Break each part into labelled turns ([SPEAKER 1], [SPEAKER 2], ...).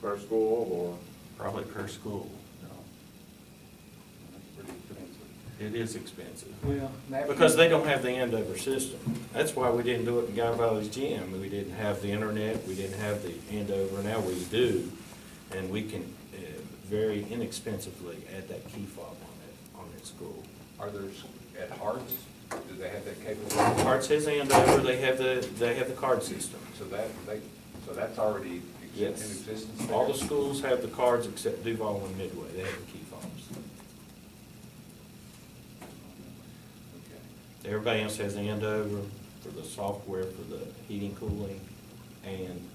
[SPEAKER 1] per school or?
[SPEAKER 2] probably per school.
[SPEAKER 1] No. That's pretty expensive.
[SPEAKER 2] It is expensive.
[SPEAKER 3] Well, that-
[SPEAKER 2] Because they don't have the Andover system. That's why we didn't do it in Guy Valley's gym. We didn't have the internet, we didn't have the Andover, now we do. And we can uh, very inexpensively add that key fob on it, on that school.
[SPEAKER 4] Are there, s- at Hearts, do they have that capability?
[SPEAKER 2] Parts says Andover, they have the, they have the card system.
[SPEAKER 4] So that, they, so that's already exi- in
[SPEAKER 2] Yes.
[SPEAKER 4] existence there?
[SPEAKER 2] All the schools have the cards except Duval and Midway, they have the key fobs.
[SPEAKER 4] Okay.
[SPEAKER 2] Everybody else has Andover for the software, for the heating, cooling, and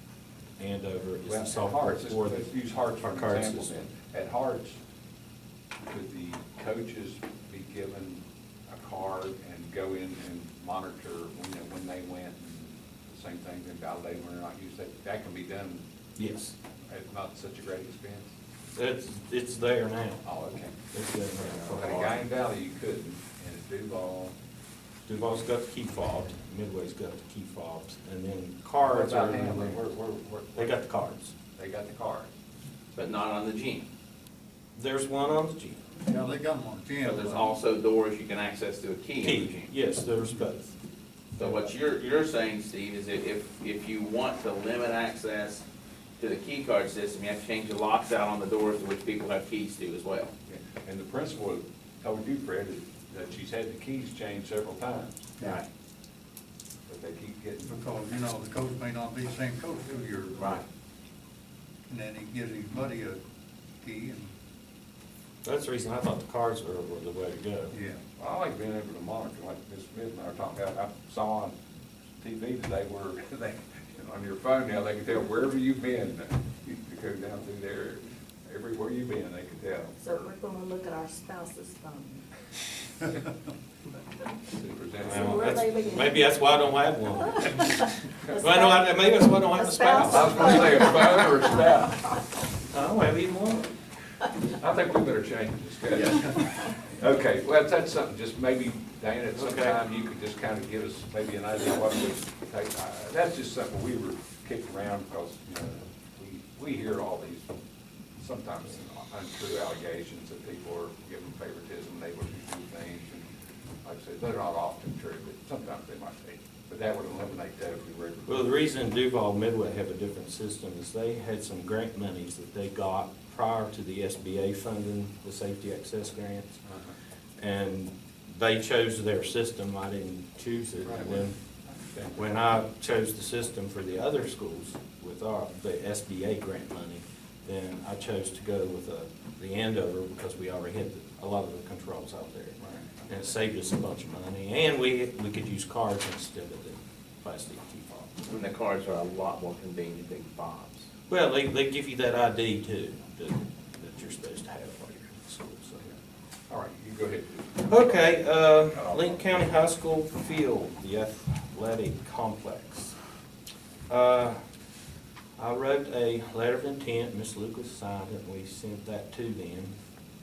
[SPEAKER 2] Andover is
[SPEAKER 4] Well,
[SPEAKER 2] the
[SPEAKER 4] at
[SPEAKER 2] software
[SPEAKER 4] Hearts,
[SPEAKER 2] for the.
[SPEAKER 4] let's use Hearts for
[SPEAKER 2] our
[SPEAKER 4] an
[SPEAKER 2] card
[SPEAKER 4] example
[SPEAKER 2] system.
[SPEAKER 4] then. At Hearts, could the coaches be given a card and go in and monitor, you know, when they went? and The same thing, then validate when they're not used, that, that can be done
[SPEAKER 2] Yes,
[SPEAKER 4] at not such a great expense?
[SPEAKER 2] it's, it's there now.
[SPEAKER 4] Oh, okay.
[SPEAKER 2] It's there now.
[SPEAKER 4] But at Guyan Valley, you couldn't, and at Duval,
[SPEAKER 2] Duval's got the key fob, Midway's got the key fobs, and then
[SPEAKER 4] What
[SPEAKER 2] cards are.
[SPEAKER 4] about Hamlin? Where- where- where-
[SPEAKER 2] They got the cards.
[SPEAKER 4] they got the card.
[SPEAKER 5] but not on the gym.
[SPEAKER 2] There's one on the gym.
[SPEAKER 3] Yeah, they got one.
[SPEAKER 5] But there's also doors you can access to a key in the
[SPEAKER 2] Key,
[SPEAKER 5] gym.
[SPEAKER 2] yes, there's both.
[SPEAKER 5] So what you're, you're saying, Steve, is that if, if you want to limit access to the key card system, you have to change the locks out on the doors to which people have keys to as well.
[SPEAKER 4] And the principal told you, Fred, that- that she's had the keys changed several times,
[SPEAKER 3] Right.
[SPEAKER 4] but they keep getting.
[SPEAKER 3] Because, you know, the coach may not be the same coach who you're.
[SPEAKER 5] Right.
[SPEAKER 3] And then he gives his buddy a key and,
[SPEAKER 2] That's the reason I thought the cards were, were the way to go.
[SPEAKER 3] yeah.
[SPEAKER 4] I like being able to monitor, like Ms. Smith and I were talking about, I saw on TV today where they, on your phone now, they can tell wherever you've been. You can go down through there, everywhere you've been, they can tell.
[SPEAKER 6] So we're gonna look at our spouse's phone.
[SPEAKER 2] Well,
[SPEAKER 6] where
[SPEAKER 4] Superintendent.
[SPEAKER 6] are they
[SPEAKER 2] that's-
[SPEAKER 6] leaving?
[SPEAKER 2] Maybe that's why I don't have one. Well, no, I, maybe that's why I don't have a
[SPEAKER 6] A spouse.
[SPEAKER 2] spouse.
[SPEAKER 4] I was gonna say a phone or a spouse.
[SPEAKER 2] I don't have even one.
[SPEAKER 4] I think we better change the discussion. Okay, well, that's something, just maybe, Diana, at some
[SPEAKER 2] Okay.
[SPEAKER 4] time, you could just kind of give us maybe an idea of what we take. Uh, That's just something we were kicking around because, you know, we, we hear all these sometimes untrue allegations that people are given favoritism, they would do things. and Like I said, they're not often true, but sometimes they might be. But that would eliminate that if we were.
[SPEAKER 2] Well, the reason Duval Midway have a different system is they had some grant monies that they got prior to the SBA funding, the safety access grants.
[SPEAKER 4] Uh-huh.
[SPEAKER 2] And they chose their system, I didn't choose it.
[SPEAKER 4] Right.
[SPEAKER 2] When, when I chose the system for the other schools with our, the SBA grant money, then I chose to go with uh, the Andover because we already had a lot of the controls out there.
[SPEAKER 4] Right.
[SPEAKER 2] And it saved us a bunch of money, and we, we could use cards instead of the plastic key fob.
[SPEAKER 5] And the cards are a lot more convenient than fobs.
[SPEAKER 2] Well, they, they give you that ID too, that, that you're supposed to have while you're in school, so.
[SPEAKER 4] All right, you go ahead.
[SPEAKER 2] Okay, uh, Lincoln County High School field, the athletic complex. Uh, I wrote a letter of intent, Miss Lucas signed it, and we sent that to them.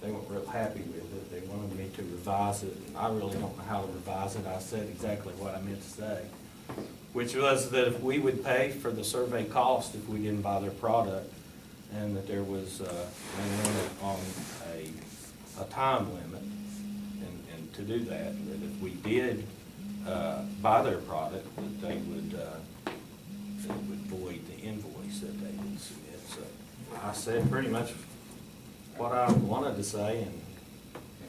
[SPEAKER 2] They weren't real happy with it, they wanted me to revise it, and I really don't know how to revise it, I said exactly what I meant to say. Which was that if we would pay for the survey cost if we didn't buy their product, and that there was, uh, a limit on a, a time limit, and, and to do that, that if we did, uh, buy their product, that they would, uh, that would void the invoice that they would submit, so I said pretty much what I wanted to say, and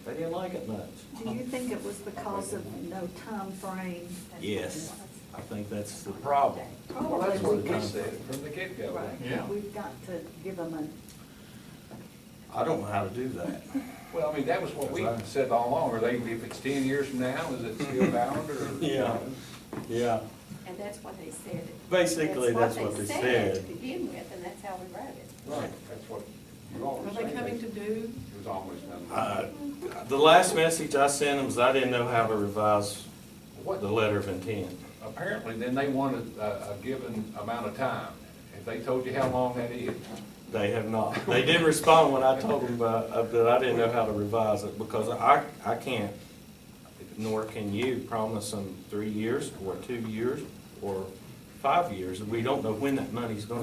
[SPEAKER 2] they didn't like it much.
[SPEAKER 6] Do you think it was because of no time frame?
[SPEAKER 2] Yes, I think that's the problem.
[SPEAKER 4] Oh, Well, that's what we said from the get-go.
[SPEAKER 6] Right,
[SPEAKER 3] Yeah.
[SPEAKER 6] we've got to give them a,
[SPEAKER 2] I don't know how to do that.
[SPEAKER 4] Well, I mean, that was what we
[SPEAKER 2] That's right.
[SPEAKER 4] said all along, are they, if it's ten years from now, is it still valid or?
[SPEAKER 2] Yeah, yeah,
[SPEAKER 7] And that's what they said.
[SPEAKER 2] Basically, that's what they said.
[SPEAKER 7] To begin with, and that's how we wrote it.
[SPEAKER 4] Right, that's what you always say.
[SPEAKER 8] Are they coming to do?
[SPEAKER 4] It was always done.
[SPEAKER 2] Uh, the last message I sent them is I didn't know how to revise
[SPEAKER 4] What-
[SPEAKER 2] the letter of intent.
[SPEAKER 4] Apparently, then they wanted a, a given amount of time. If they told you how long that is,
[SPEAKER 2] They have not. They did respond when I told them, uh, uh, that I didn't know how to revise it, because I, I can't, nor can you promise them three years, or two years, or five years. We don't know when that money's gonna